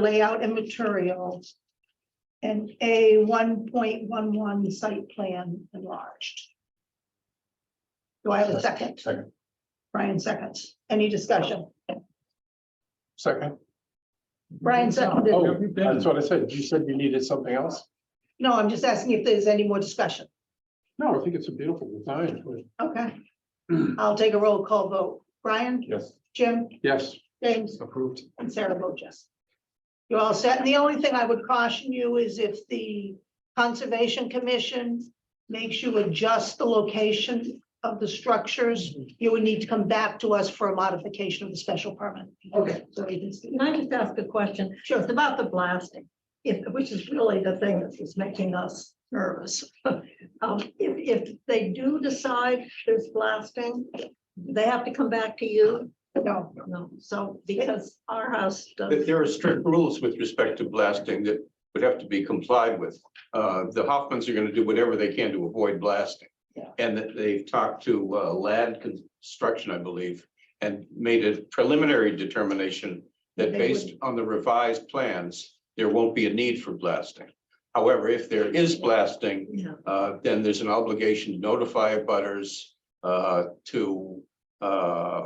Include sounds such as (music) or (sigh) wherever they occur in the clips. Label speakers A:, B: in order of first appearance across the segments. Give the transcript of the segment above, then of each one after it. A: layout and material. And A one point one one site plan enlarged. Do I have a second?
B: Second.
A: Brian seconds. Any discussion?
B: Second,
A: Brian seconded.
B: oh, that's what I said. You said you needed something else?
A: No, I'm just asking if there's any more discussion.
B: No, I think it's a beautiful design.
A: Okay. I'll take a roll call vote. Brian,
B: Yes.
A: Jim,
B: Yes,
A: James,
B: approved.
A: and Sarah Bojas. You're all set. And the only thing I would caution you is if the Conservation Commission makes you adjust the location of the structures, you would need to come back to us for a modification of the special permit.
C: Okay.
A: So we can see.
C: Can I just ask a question?
A: Sure.
C: It's about the blasting, if, which is really the thing that is making us nervous. (laughs) Um, if, if they do decide there's blasting, they have to come back to you?
A: No,
C: No, so because our house
D: That
C: does,
D: there are strict rules with respect to blasting that would have to be complied with. Uh, the Hoffmans are gonna do whatever they can to avoid blasting.
A: Yeah.
D: And that they've talked to uh, Lad Construction, I believe, and made a preliminary determination
A: They
D: that
A: would-
D: based on the revised plans, there won't be a need for blasting. However, if there is blasting,
C: you know,
D: uh, then there's an obligation to notify butters, uh, to, uh,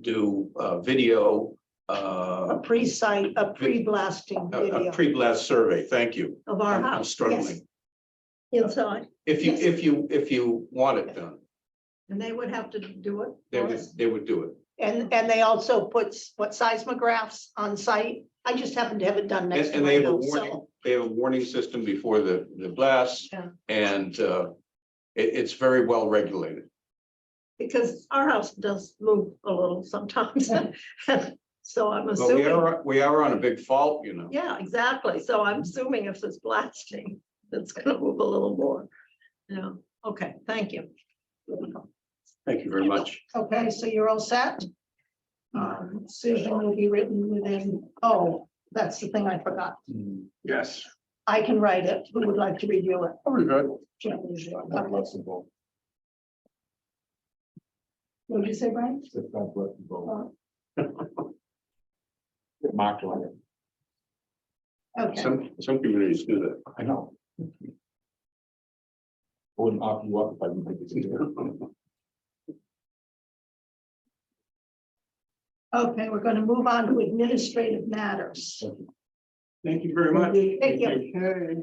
D: do, uh, video, uh,
A: a pre-site, a pre-blasting
D: a- A
A: video
D: pre-blast survey, thank you.
C: of our
D: I'm I'm
C: house
A: yes.
D: struggling.
C: inside,
D: If you,
A: Yes.
D: if you, if you want it done,
C: and they would have to do it.
D: they
C: for
D: would,
C: us?
D: they would do it.
A: and, and they also put what seismographs on site. I just happen to have it done next
D: And,
A: to
D: and they
A: my
D: have a
A: house,
D: warning,
A: so.
D: they have a warning system before the, the blast.
C: Yeah.
D: And, uh, it, it's very well regulated.
C: Because our house does move a little sometimes. (laughs) So I'm
D: But we
C: assuming.
D: are, we are on a big fault, you know.
C: Yeah, exactly. So I'm assuming if it's blasting, it's gonna move a little more. Yeah, okay, thank you.
D: Thank you very much.
A: Okay, so you're all set? Um, decision will be written within, oh, that's the thing I forgot.
B: Mm, Yes.
A: I can write it. Who would like to review it?
B: Very good.
A: Jim, would you? What did you say, Brian? Uh,
B: Marked on it.
A: Okay,
D: Some, some communities do that.
B: I know. Wouldn't offer you up if I didn't think it's.
A: okay, we're gonna move on to administrative matters.
D: (laughs) Thank you very much.
A: Thank you.
D: Okay.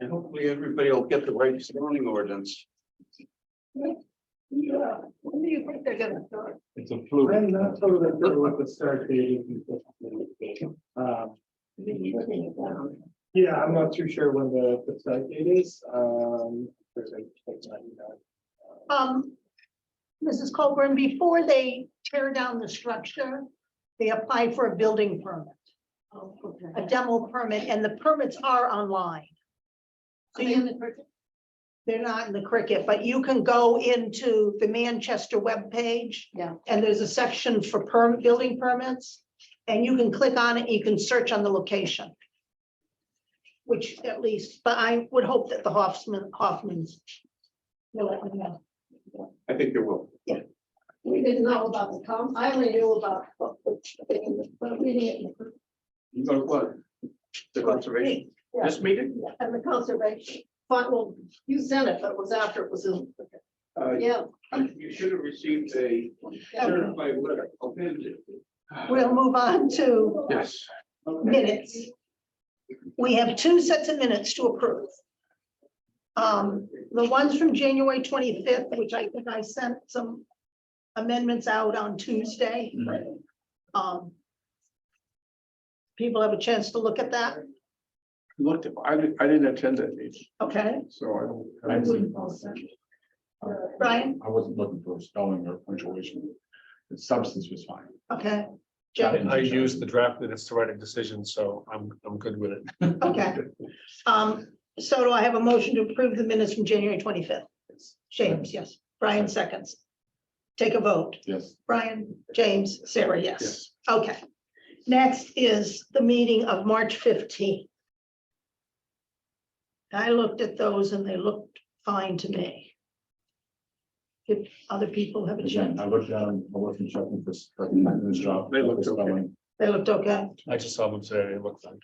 D: And hopefully everybody will get the right zoning ordinance.
A: Yeah, when do you think they're gonna start?
B: It's a fluke.
E: I'm not sure that they're what the start date is. Um, Yeah, I'm not too sure when the, the start date is. Um, there's a- there's not, you know,
A: Um, Mrs. Colburn, before they tear down the structure, they apply for a building permit, a demo permit, and the permits are online. So you- They're not in the cricket, but you can go into the Manchester webpage.
C: Yeah.
A: And there's a section for perm, building permits, and you can click on it, you can search on the location. Which at least, but I would hope that the Hoffman, Hoffmans. will let me know.
D: I think there will.
C: We didn't know about the com, I only knew about. And
D: You go to what? The conservation, this meeting?
C: the conservation, but well, you sent it, but it was after it was in,
D: Uh,
C: yeah.
D: You should have received a certified letter appended.
A: We'll move on to
B: Yes.
A: minutes. We have two sets of minutes to approve. Um, the ones from January twenty-fifth, which I think I sent some amendments out on Tuesday.
B: Right.
A: Um. People have a chance to look at that,
B: Looked, I didn't, I didn't attend that meeting,
A: okay?
B: so I don't.
A: Brian?
B: I wasn't looking for spelling or punctuation. The substance was fine.
A: Okay,
B: Got
A: Jim,
B: it.
F: I used the draft minutes to write a decision, so I'm, I'm good with it.
A: okay. Um, so do I have a motion to approve the minutes from January twenty-fifth? James, yes. Brian seconds. Take a vote.
B: Yes.
A: Brian, James, Sarah, yes. Okay. Next is the meeting of March 15. I looked at those and they looked fine to me. If other people have a
G: Again,
A: chance,
G: I looked at them, I wasn't checking for, for my job.
B: They looked okay.
H: They looked okay.
A: I just saw them today, they look fine.